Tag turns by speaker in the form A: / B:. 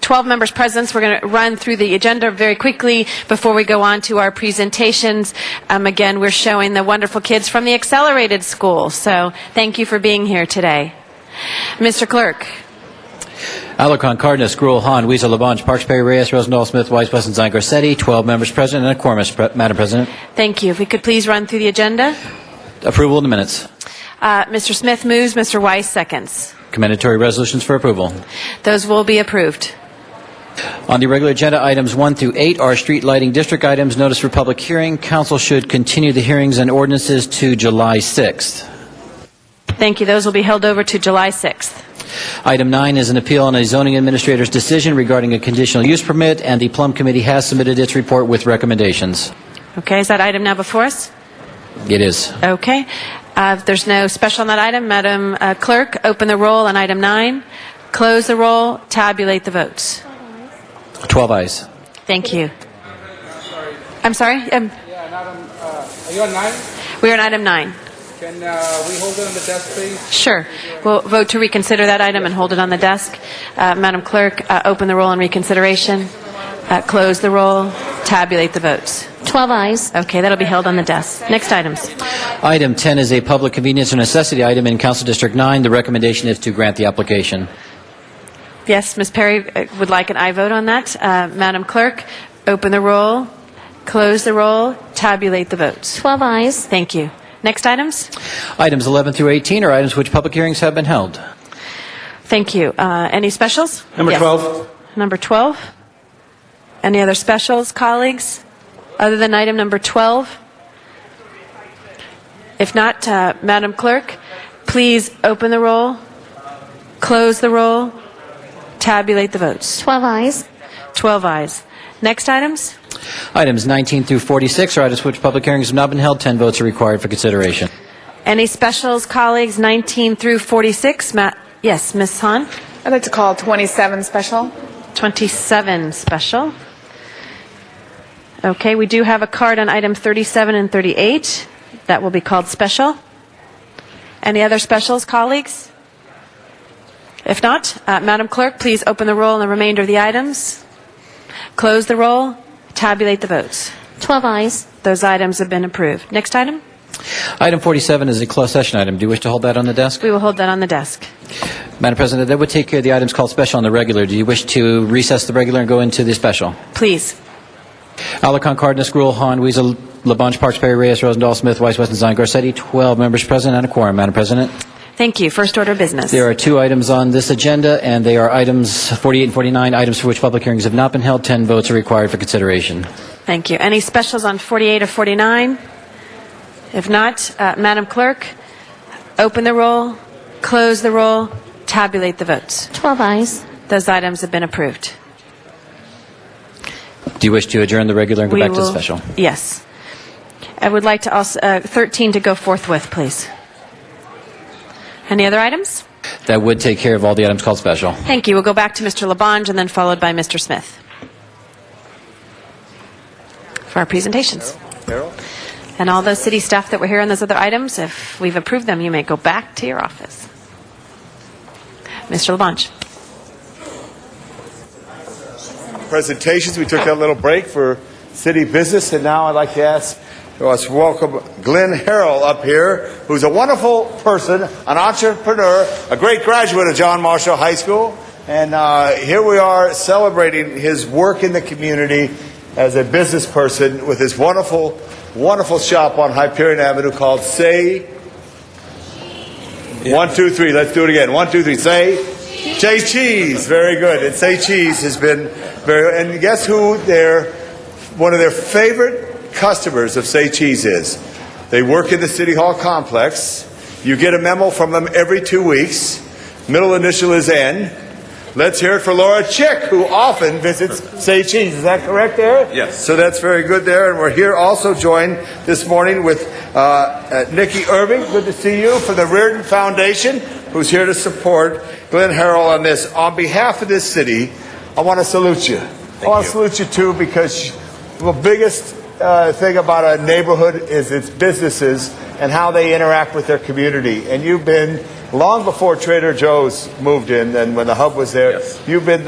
A: 12 members present. We're going to run through the agenda very quickly before we go on to our presentations. Um, Again, we're showing the wonderful kids from the Accelerated School, so thank you for being here today. Mr. Clerk?
B: Alarcon, Cardenas, Gruel, Hahn, Weezer, Labange, Parks, Perry, Reyes, Rosendahl, Smith, Weiss, Westenstein, Garcetti, 12 members present, and a quorum, Mr. Pre- Madam President.
A: Thank you. If we could please run through the agenda.
B: Approval of the minutes.
A: Uh, Mr. Smith moves, Mr. Weiss seconds.
B: Commendatory resolutions for approval.
A: Those will be approved.
B: On the regular agenda, items 1 through 8 are street lighting district items, notice for public hearing. Council should continue the hearings and ordinances to July 6th.
A: Thank you. Those will be held over to July 6th.
B: Item 9 is an appeal on a zoning administrator's decision regarding a conditional use permit, and the Plum Committee has submitted its report with recommendations.
A: Okay, is that item now before us?
B: It is.
A: Okay. Uh, If there's no special on that item, Madam uh, Clerk, open the roll on item nine, close the roll, tabulate the votes.
B: 12 ayes.
A: Thank you. I'm sorry? Um,
C: Yeah, and Adam, uh, are you on nine?
A: We're on item nine.
C: Can uh, we hold it on the desk, please?
A: Sure. We'll vote to reconsider that item and hold it on the desk. Uh, Madam Clerk, uh, open the roll on reconsideration, uh, close the roll, tabulate the votes.
D: 12 eyes.
A: Okay, that'll be held on the desk. Next items.
B: Item 10 is a public convenience or necessity item in Council District 9. The recommendation is to grant the application.
A: Yes, Ms. Perry uh, would like an aye vote on that. Uh, Madam Clerk, open the roll, close the roll, tabulate the votes.
D: 12 eyes.
A: Thank you. Next items?
B: Items 11 through 18 are items which public hearings have been held.
A: Thank you. Uh, Any specials?
E: Number
A: Yes.
E: 12.
A: Number 12? Any other specials, colleagues, other than item number 12? If not, uh, Madam Clerk, please open the roll, close the roll, tabulate the votes.
D: 12 eyes.
A: 12 ayes. Next items?
B: Items 19 through 46 are items which public hearings have not been held. 10 votes are required for consideration.
A: Any specials, colleagues, 19 through 46? Ma- Yes, Ms. Han?
F: I'd like to call 27 special.
A: 27 special. Okay, we do have a card on item 37 and 38. That will be called special. Any other specials, colleagues? If not, uh, Madam Clerk, please open the roll on the remainder of the items, close the roll, tabulate the votes.
D: 12 eyes.
A: Those items have been approved. Next item?
B: Item 47 is a closed session item. Do you wish to hold that on the desk?
A: We will hold that on the desk.
B: Madam President, that would take care of the items called special and the regular. Do you wish to recess the regular and go into the special?
A: Please.
B: Alarcon, Cardenas, Gruel, Hahn, Weezer, Labange, Parks, Perry, Reyes, Rosendahl, Smith, Weiss, Westenstein, Garcetti, 12 members present and a quorum. Madam President?
A: Thank you. First order of business.
B: There are two items on this agenda, and they are items 48 and 49, items for which public hearings have not been held. 10 votes are required for consideration.
A: Thank you. Any specials on 48 or 49? If not, uh, Madam Clerk, open the roll, close the roll, tabulate the votes.
D: 12 eyes.
A: Those items have been approved.
B: Do you wish to adjourn the regular and go
A: We
B: back to the
A: will-
B: special?
A: Yes. I would like to also, uh, 13 to go forthwith, please. Any other items?
B: That would take care of all the items called special.
A: Thank you. We'll go back to Mr. Labange and then followed by Mr. Smith for our presentations. And all those city staff that were here on those other items, if we've approved them, you may go back to your office. Mr. Labange.
E: presentations. We took that little break for city business, and now I'd like to ask, let's welcome Glenn Harrell up here, who's a wonderful person, an entrepreneur, a great graduate of John Marshall High School, and uh, here we are celebrating his work in the community as a business person with his wonderful, wonderful shop on Hyperion Avenue called Say. One, two, three. Let's do it again. One, two, three. Say Say Cheese. Very good. And Say Cheese has been very. And guess who their one of their favorite customers of Say Cheese is? They work in the City Hall complex. You get a memo from them every two weeks. Middle initial is N. Let's hear it for Laura Chick, who often visits Say Cheese. Is that correct, Eric? Yes. So that's very good there. And we're here also joined this morning with uh, uh, Nikki Irving. Good to see you from the Reardon Foundation, who's here to support Glenn Harrell on this. On behalf of this city, I want to salute you. I want to salute you too because the biggest uh, thing about a neighborhood is its businesses and how they interact with their community. And you've been long before Trader Joe's moved in and when the hub was there,
G: Yes.
E: you've been